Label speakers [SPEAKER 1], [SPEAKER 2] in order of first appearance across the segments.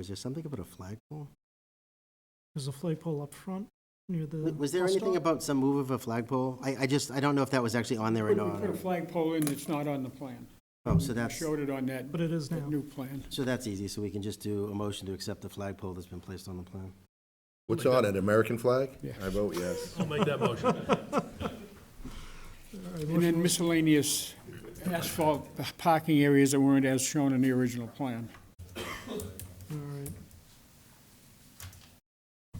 [SPEAKER 1] Was there something about a flagpole?
[SPEAKER 2] There's a flagpole up front near the.
[SPEAKER 1] W- Was there
[SPEAKER 2] bus
[SPEAKER 1] anything
[SPEAKER 2] stop.
[SPEAKER 1] about some move of a flagpole? I, I just, I don't know if that was actually on there or
[SPEAKER 2] Wouldn't
[SPEAKER 1] not.
[SPEAKER 2] be
[SPEAKER 1] or-
[SPEAKER 2] fair.
[SPEAKER 3] Put a flagpole in that's not on the plan.
[SPEAKER 1] Oh, so
[SPEAKER 3] I
[SPEAKER 1] that's,
[SPEAKER 3] showed it on that,
[SPEAKER 2] But it is
[SPEAKER 3] that
[SPEAKER 2] now.
[SPEAKER 3] new plan.
[SPEAKER 1] so that's easy, so we can just do a motion to accept the flagpole that's been placed on the plan.
[SPEAKER 4] What's
[SPEAKER 2] Oh
[SPEAKER 4] on it, American flag?
[SPEAKER 3] Yeah.
[SPEAKER 4] I vote yes.
[SPEAKER 5] I'll make that motion.
[SPEAKER 3] And then miscellaneous asphalt parking areas that weren't as shown in the original plan.
[SPEAKER 2] All right,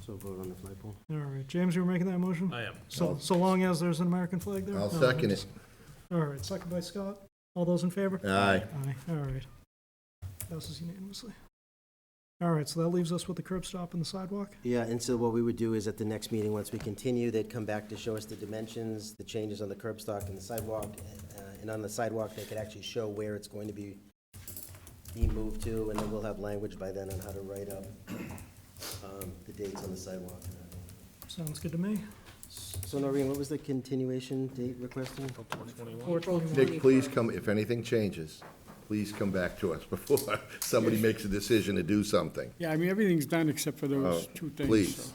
[SPEAKER 1] So vote on the flagpole.
[SPEAKER 2] all right. James, you were making that motion?
[SPEAKER 5] I am.
[SPEAKER 2] So, so long as there's an American flag there?
[SPEAKER 4] I'll
[SPEAKER 2] No,
[SPEAKER 4] second it.
[SPEAKER 2] All right, second by Scott. All those in favor?
[SPEAKER 4] Aye.
[SPEAKER 2] Aye, all right. Passes unanimously. All right, so that leaves us with the curb stop and the sidewalk.
[SPEAKER 1] Yeah, and so what we would do is at the next meeting, once we continue, they'd come back to show us the dimensions, the changes on the curb stock and the sidewalk. uh, And on the sidewalk, they could actually show where it's going to be, be moved to, and then we'll have language by then on how to write up um, the dates on the sidewalk. and everything.
[SPEAKER 2] Sounds good to me.
[SPEAKER 1] So Noreen, what was the continuation date requesting?
[SPEAKER 4] Nick, please come, if anything changes, please come back to us before somebody makes a decision to do something.
[SPEAKER 3] Yeah, I mean, everything's done except for those
[SPEAKER 4] Oh,
[SPEAKER 3] two things.
[SPEAKER 4] please.
[SPEAKER 3] so.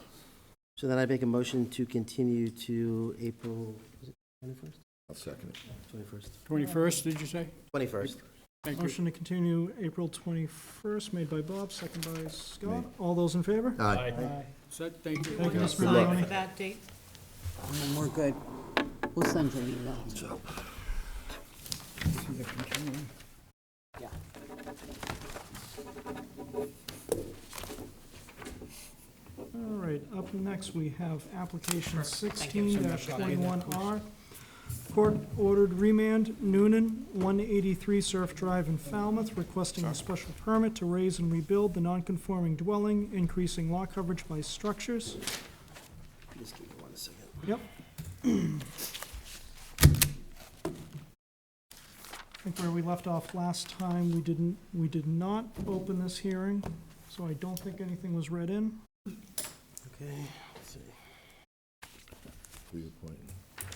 [SPEAKER 1] So then I make a motion to continue to April, is it twenty-first?
[SPEAKER 4] I'll second it.
[SPEAKER 1] Twenty-first.
[SPEAKER 3] 21st, did you say?
[SPEAKER 1] Twenty-first.
[SPEAKER 3] Thank you.
[SPEAKER 2] Motion to continue April 21st, made by Bob, second by Scott. All those in favor?
[SPEAKER 4] Aye.
[SPEAKER 3] Set, thank you.
[SPEAKER 2] Thank you, Ms.
[SPEAKER 4] Good luck.
[SPEAKER 2] Maloney.
[SPEAKER 6] that date?
[SPEAKER 7] And we're good. We'll send you an email. Yeah.
[SPEAKER 2] All right, up next, we have application sixteen twenty-one R. Court ordered remand Noonan, one eighty-three Surf Drive in Falmouth, requesting a special permit to raise and rebuild the non-conforming dwelling, increasing lot coverage by structures.
[SPEAKER 1] Just give me one second.
[SPEAKER 2] Yep. I think where we left off last time, we didn't, we did not open this hearing, so I don't think anything was read in.
[SPEAKER 1] Okay, let's see.
[SPEAKER 4] Please appoint.
[SPEAKER 2] I'll-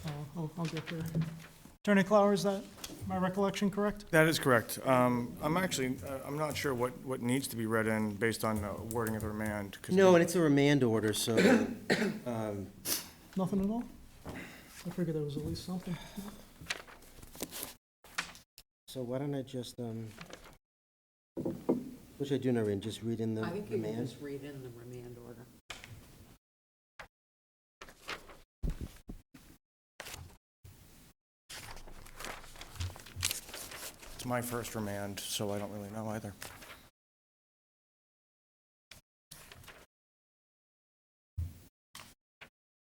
[SPEAKER 2] Uh, I'll, I'll get there. Attorney Clower, is that my recollection correct?
[SPEAKER 8] That is correct. Um, I'm actually, uh, I'm not sure what, what needs to be read in based on uh, wording of the remand. 'cause
[SPEAKER 1] No,
[SPEAKER 8] we-
[SPEAKER 1] and it's a remand order, so, um,
[SPEAKER 2] Nothing at all? I figured there was at least something.
[SPEAKER 1] so why don't I just, um, what should I do, Noreen, just read in the
[SPEAKER 7] I think you can
[SPEAKER 1] remand?
[SPEAKER 7] just read in the remand order.
[SPEAKER 8] It's my first remand, so I don't really know either.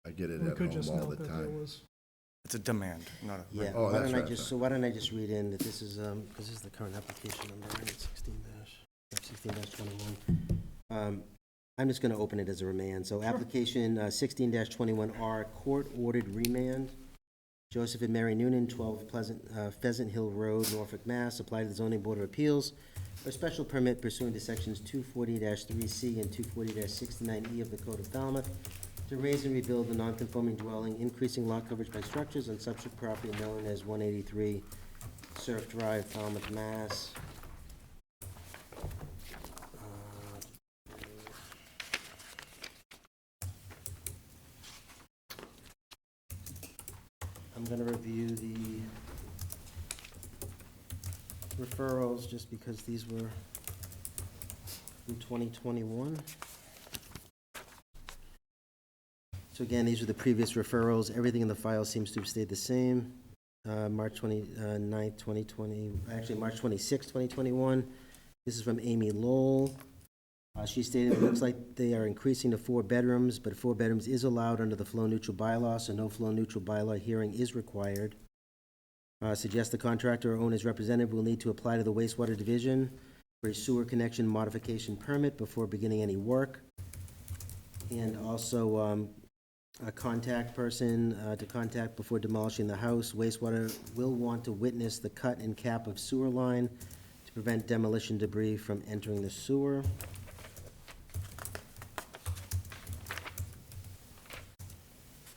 [SPEAKER 4] I get it
[SPEAKER 2] We
[SPEAKER 4] at
[SPEAKER 2] could just
[SPEAKER 4] home all
[SPEAKER 2] note
[SPEAKER 4] the
[SPEAKER 2] that there
[SPEAKER 4] time.
[SPEAKER 2] was,
[SPEAKER 8] It's a demand, not a
[SPEAKER 1] Yeah,
[SPEAKER 8] remand.
[SPEAKER 4] Oh,
[SPEAKER 1] why
[SPEAKER 4] that's
[SPEAKER 1] don't I
[SPEAKER 4] right,
[SPEAKER 1] just,
[SPEAKER 4] sorry.
[SPEAKER 1] so why don't I just read in that this is, um, because this is the current application number, right, sixteen dash, sixteen dash twenty-one. Um, I'm just gonna open it as a remand, so application uh, sixteen dash twenty-one R, court ordered remand. Joseph and Mary Noonan, twelve Pleasant, uh, Pheasant Hill Road, Norfolk, Mass, applied to the zoning board of appeals for special permit pursuant to sections two forty three C and two forty sixty-nine E of the Code of Falmouth to raise and rebuild the non-conforming dwelling, increasing lot coverage by structures on subject property known as one eighty-three Surf Drive, Falmouth, Mass. Uh, I'm gonna review the referrals just because these were in twenty twenty-one. So again, these are the previous referrals. Everything in the file seems to have stayed the same. Uh, March 29th, 2020, actually, March 26th, 2021. This is from Amy Lowell. Uh, She stated, "It looks like they are increasing to four bedrooms, but four bedrooms is allowed under the flow-neutral bylaw, so no flow-neutral bylaw hearing is required." Uh, Suggest the contractor or owner's representative will need to apply to the wastewater division for a sewer connection modification permit before beginning any work. And also, um, a contact person uh, to contact before demolishing the house. Wastewater will want to witness the cut and cap of sewer line to prevent demolition debris from entering the sewer.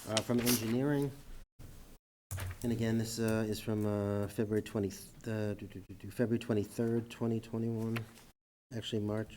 [SPEAKER 1] Uh, From engineering. And again, this uh, is from uh, February 20, uh, do- do- do- do, February 23rd, 2021, actually March.